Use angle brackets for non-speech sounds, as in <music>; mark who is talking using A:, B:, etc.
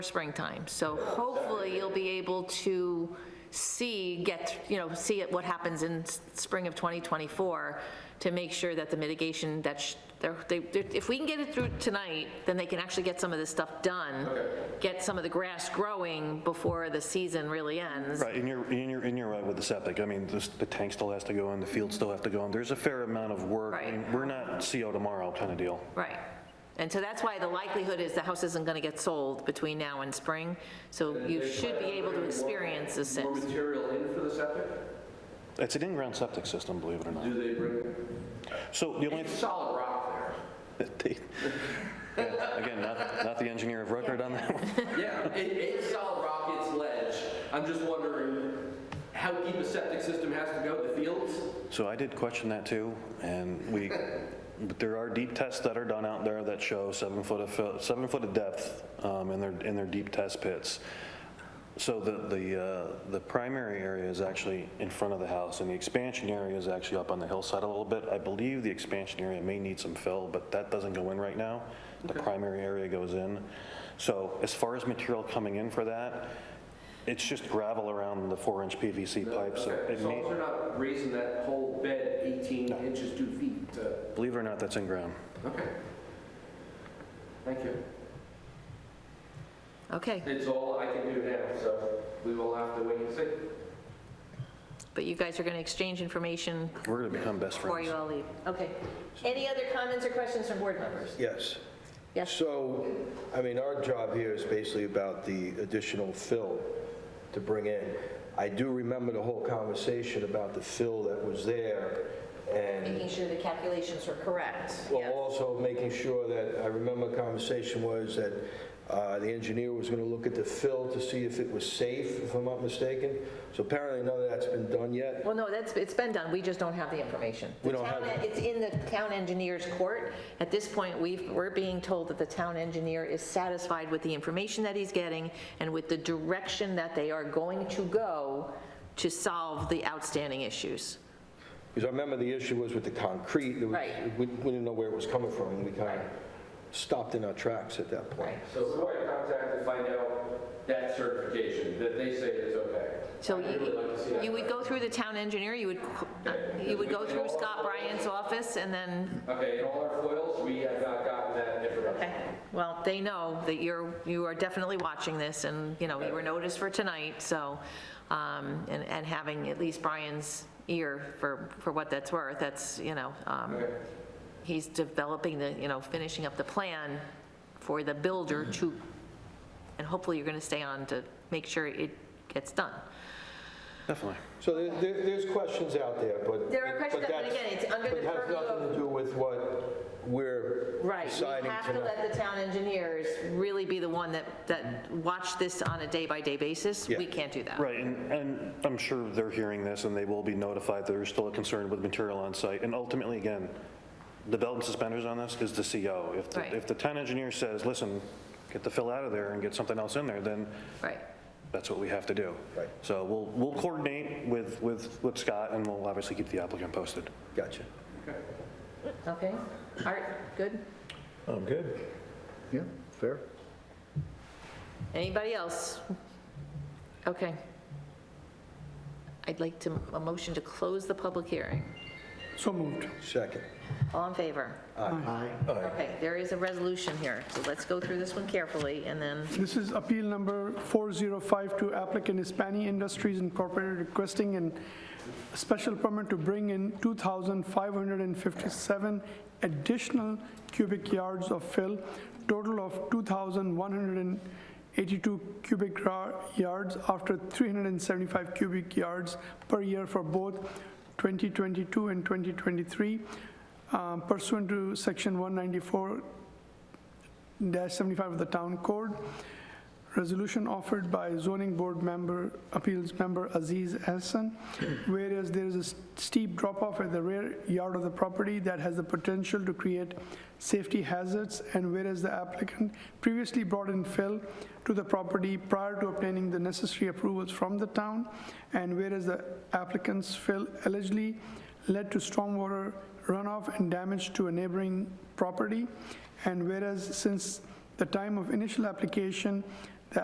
A: springtime. So hopefully you'll be able to see, get, you know, see what happens in s- spring of 2024 to make sure that the mitigation that, sh- they're- they- they're- if we can get it through tonight, then they can actually get some of this stuff done. Get some of the grass growing before the season really ends.
B: Right, and you're, and you're, and you're right with the septic. I mean, this- the tank still has to go in, the field still have to go in. There's a fair amount of work. I mean,
A: Right.
B: We're not CO tomorrow kind of deal.
A: Right. And so that's why the likelihood is the house isn't going to get sold between now and spring. So you should be able to experience the
C: More
A: sips.
C: material in for the septic?
B: It's an in-ground septic system, believe it or not.
C: Do they bring,
B: So the
C: <laughs>
B: only, <laughs>
C: it's solid rock
B: they- yeah, again, not, not the engineer of record on that one.
C: there. Yeah, it, it's solid rock, it's ledge. I'm just wondering how deep a septic system has to go, the fields?
B: So I did question that too, and we, but there are deep tests that are done out there that show seven foot of, fill- seven foot of depth um, in their, in their deep test pits. So the, the, uh, the primary area is actually in front of the house, and the expansion area is actually up on the hillside a little bit. I believe the expansion area may need some fill, but that doesn't go in right now. The primary area goes in. So as far as material coming in for that, it's just gravel around the four-inch PVC pipe, so
C: Okay,
B: it
C: So
B: may,
C: they're not raising that whole bed 18 inches, 2 feet to,
B: believe it or not, that's in ground.
C: okay. Thank you.
A: Okay.
C: It's all I can do now, so we will have to wait and see.
A: But you guys are going to exchange information
B: We're going to become best
A: Before you
B: friends.
A: all leave, okay. Any other comments or questions from board members?
D: Yes.
A: Yes.
D: So, I mean, our job here is basically about the additional fill to bring in. I do remember the whole conversation about the fill that was there and,
A: Making sure the calculations were correct.
D: well, also making sure that, I remember the conversation was that uh, the engineer was going to look at the fill to see if it was safe, if I'm not mistaken. So apparently none of that's been done yet.
A: Well, no, that's, it's been done, we just don't have the information.
D: We
A: The
D: don't
A: town-
D: have it.
A: It's in the town engineer's court. At this point, we've, we're being told that the town engineer is satisfied with the information that he's getting and with the direction that they are going to go to solve the outstanding issues.
D: Because I remember the issue was with the concrete. there was-
A: Right.
D: We we didn't know where it was coming from and we kind of stopped in our tracks at that point.
C: So who I contact to find out that certification, that they say it's okay?
A: So
C: I'd really like to see
A: you,
C: that.
A: you would go through the town engineer, you would, you would go through Scott Bryant's office and then
C: Okay, in all our foils, we have not gotten that information.
A: Okay, well, they know that you're, you are definitely watching this, and, you know, you were noticed for tonight, so, um, and, and having at least Brian's ear for, for what that's worth, that's, you know, um,
C: Okay.
A: he's developing the, you know, finishing up the plan for the builder
D: Mm.
A: to, and hopefully you're gonna stay on to make sure it gets done.
B: Definitely.
D: So there- there- there's questions out there, but...
A: There are questions, but
D: that's-
A: again, it's under the
D: But
A: purview
D: has nothing
A: of-
D: to do with what we're
A: Right, we
D: deciding
A: have to
D: tonight.
A: let the town engineers really be the one that, that watch this on a day-by-day basis.
D: Yeah.
A: We can't do that.
B: Right, and, and I'm sure they're hearing this, and they will be notified that there's still a concern with material on site. And ultimately, again, the belt and suspenders on this is the CO. If,
A: Right.
B: the- if the town engineer says, listen, get the fill out of there and get something else in there, then
A: Right.
B: that's what we have to do.
D: Right.
B: So we'll, we'll coordinate with, with, with Scott, and we'll obviously keep the applicant posted.
D: Gotcha.
A: Okay, Art, good?
E: I'm good. Yeah, fair.
A: Anybody else? Okay. I'd like to, a motion to close the public hearing.
E: So moved.
D: Second.
A: All in favor? Okay, there is a resolution here, so let's go through this one carefully, and then,
E: This is appeal number 4052, applicant Hispani Industries Incorporated requesting an special permit to bring in 2,557 additional cubic yards of fill, total of 2,182 cubic ra- yards after 375 cubic yards per year for both 2022 and 2023 um, pursuant to section 194 dash 75 of the town code. Resolution offered by zoning board member, appeals member Aziz Hassan, whereas there is a s- steep drop-off at the rear yard of the property that has the potential to create safety hazards, and whereas the applicant previously brought in fill to the property prior to obtaining the necessary approvals from the town, and whereas the applicant's fill allegedly led to stormwater runoff and damage to a neighboring property. And whereas since the time of initial application,